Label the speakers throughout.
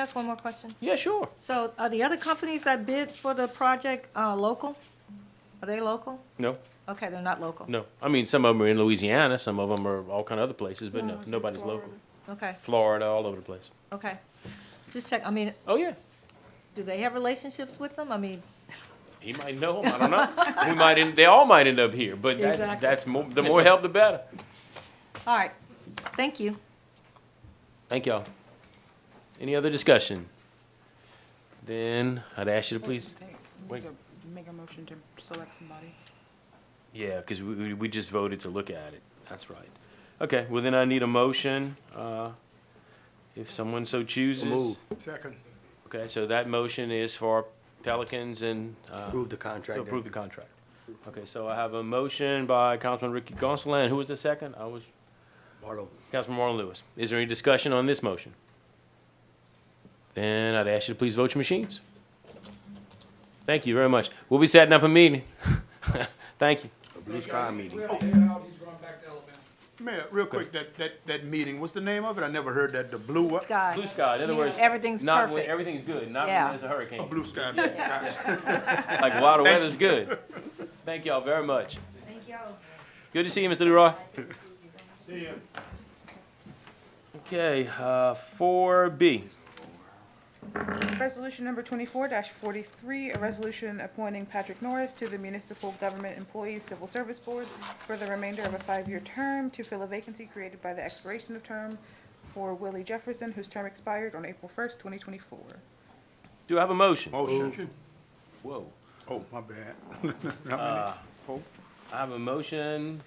Speaker 1: That's one more question.
Speaker 2: Yeah, sure.
Speaker 1: So are the other companies that bid for the project uh, local? Are they local?
Speaker 2: No,
Speaker 1: Okay, they're not local.
Speaker 2: no. I mean, some of them are in Louisiana, some of them are all kind of other places, but no, nobody's local.
Speaker 1: Okay,
Speaker 2: Florida, all over the place.
Speaker 1: okay. Just check, I mean,
Speaker 2: Oh, yeah.
Speaker 1: do they have relationships with them? I mean,
Speaker 2: He might know them. I don't know. we might end, they all might end up here, but that,
Speaker 1: Exactly.
Speaker 2: that's more, the more help, the better.
Speaker 1: all right, thank you.
Speaker 2: Thank y'all. Any other discussion? Then I'd ask you to please.
Speaker 3: Hey, we
Speaker 2: Wait.
Speaker 3: need to Make a motion to select somebody.
Speaker 2: Yeah, because we, we- we just voted to look at it. That's right. Okay, well, then I need a motion, uh, if someone so chooses.
Speaker 4: move.
Speaker 5: Second,
Speaker 2: Okay, so that motion is for Pelicans and, uh,
Speaker 4: Approve the
Speaker 2: to
Speaker 4: contract.
Speaker 2: approve the contract. Okay, so I have a motion by Councilman Ricky Gonsalas, and who was the second? I was,
Speaker 4: Bartle.
Speaker 2: Councilman Marlon Lewis. Is there any discussion on this motion? Then I'd ask you to please vote your machines. Thank you very much. We'll be setting up a meeting. Thank you.
Speaker 4: A Blue Sky meeting.
Speaker 5: Mayor, real quick, that, that, that meeting, what's the name of it? I never heard that, the blue
Speaker 2: Blue
Speaker 5: what?
Speaker 1: Sky,
Speaker 2: sky, in other words.
Speaker 1: Everything's
Speaker 2: not when-
Speaker 1: perfect.
Speaker 2: Everything's good, not when
Speaker 1: Yeah.
Speaker 2: there's a hurricane.
Speaker 5: Blue sky, guys.
Speaker 2: Like, while the weather's good. Thank y'all very much.
Speaker 1: Thank you.
Speaker 2: Good to see you, Mr. Leroy. See you. Okay, uh, four B.
Speaker 3: Resolution number twenty-four forty-three, a resolution appointing Patrick Norris to the Municipal Government Employees Civil Service Board for the remainder of a five-year term to fill a vacancy created by the expiration of term for Willie Jefferson, whose term expired on April first, twenty twenty-four.
Speaker 2: Do I have a motion?
Speaker 5: Motion.
Speaker 2: Whoa.
Speaker 5: Oh, my bad. How many?
Speaker 2: I have a motion.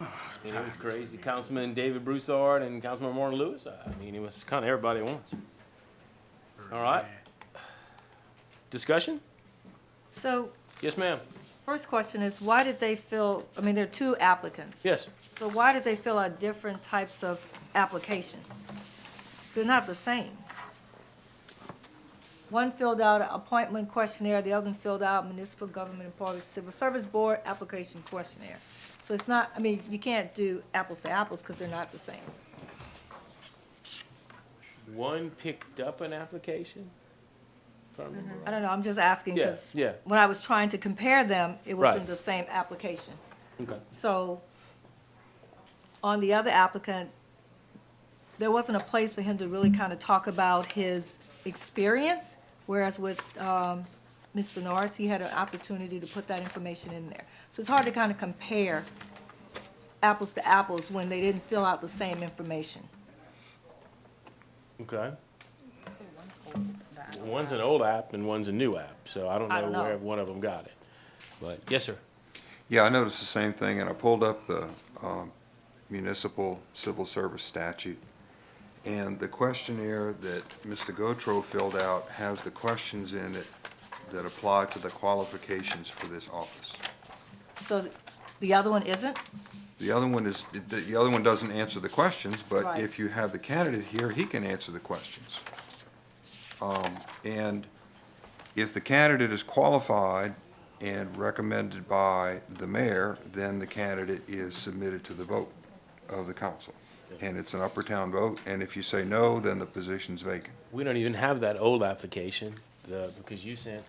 Speaker 2: And it was crazy. Councilman David Broussard and Councilman Martin Lewis. I mean, it was kind of everybody at once. All right. Discussion?
Speaker 1: So,
Speaker 2: Yes, ma'am.
Speaker 1: first question is, why did they fill, I mean, there are two applicants.
Speaker 2: Yes.
Speaker 1: So why did they fill out different types of applications? They're not the same. One filled out an appointment questionnaire, the other one filled out municipal government employees civil service board application questionnaire. So it's not, I mean, you can't do apples to apples because they're not the same.
Speaker 2: One picked up an application? If I remember right.
Speaker 1: I don't know, I'm just asking
Speaker 2: Yeah,
Speaker 1: because
Speaker 2: yeah.
Speaker 1: when I was trying to compare them, it
Speaker 2: Right.
Speaker 1: wasn't the same application. Mm-hmm.
Speaker 2: Okay.
Speaker 1: So on the other applicant, there wasn't a place for him to really kind of talk about his experience, whereas with um, Mr. Norris, he had an opportunity to put that information in there. So it's hard to kind of compare apples to apples when they didn't fill out the same information.
Speaker 2: Okay. One's an old app and one's a new app, so I don't
Speaker 1: I don't
Speaker 2: know where
Speaker 1: know.
Speaker 2: one of them got it. But, yes, sir.
Speaker 6: Yeah, I noticed the same thing, and I pulled up the um, municipal civil service statute. And the questionnaire that Mr. Gotro filled out has the questions in it that apply to the qualifications for this office.
Speaker 1: So the other one isn't?
Speaker 6: The other one is, the- the other one doesn't answer the questions, but
Speaker 1: Right.
Speaker 6: if you have the candidate here, he can answer the questions. Um, And if the candidate is qualified and recommended by the mayor, then the candidate is submitted to the vote of the council. And it's an upper town vote, and if you say no, then the position's vacant.
Speaker 2: We don't even have that old application, the, because you sent,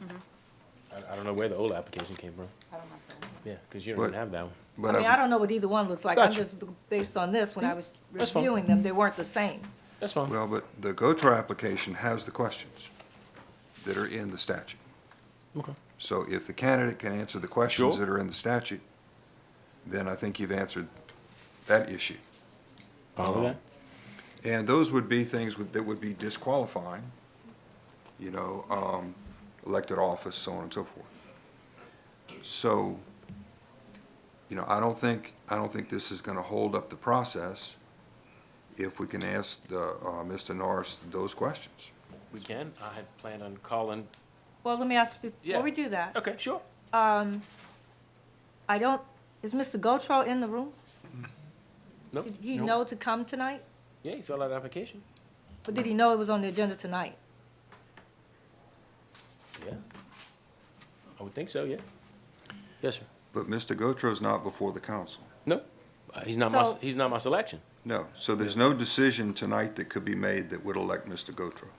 Speaker 2: I, I don't know where the old application came from.
Speaker 3: I don't know.
Speaker 2: Yeah, because you don't even
Speaker 6: But-
Speaker 2: have that one.
Speaker 1: I
Speaker 6: But
Speaker 1: mean, I don't know what either one looks like. I'm
Speaker 2: Gotcha. Hmm,
Speaker 1: just, b- based on this, when I was
Speaker 2: That's fine.
Speaker 1: reviewing them, they weren't the same.
Speaker 2: That's fine.
Speaker 6: Well, but the GOTRA application has the questions that are in the statute.
Speaker 2: Okay.
Speaker 6: So if the candidate can answer the questions
Speaker 2: Sure.
Speaker 6: that are in the statute, then I think you've answered that issue. uh,
Speaker 2: Fine with that?
Speaker 6: And those would be things would- that would be disqualifying, you know, um, elected office, so on and so forth. So, you know, I don't think, I don't think this is gonna hold up the process if we can ask the, uh, Mr. Norris those questions.
Speaker 2: We can. I had planned on calling.
Speaker 1: Well, let me ask, you
Speaker 2: Yeah.
Speaker 1: before we do that,
Speaker 2: Okay, sure.
Speaker 1: I don't, is Mr. Gotro in the room?
Speaker 2: Nope.
Speaker 1: Did he know to come tonight?
Speaker 2: Yeah, you filled out an application.
Speaker 1: Or did he know it was on the agenda tonight?
Speaker 2: Yeah. I would think so, yeah. Yes, sir.
Speaker 6: But Mr. Gotro's not before the council.
Speaker 2: No, uh, he's not my,
Speaker 1: So-
Speaker 2: he's not my selection.
Speaker 6: No, so there's no decision tonight that could be made that would elect Mr. Gotro.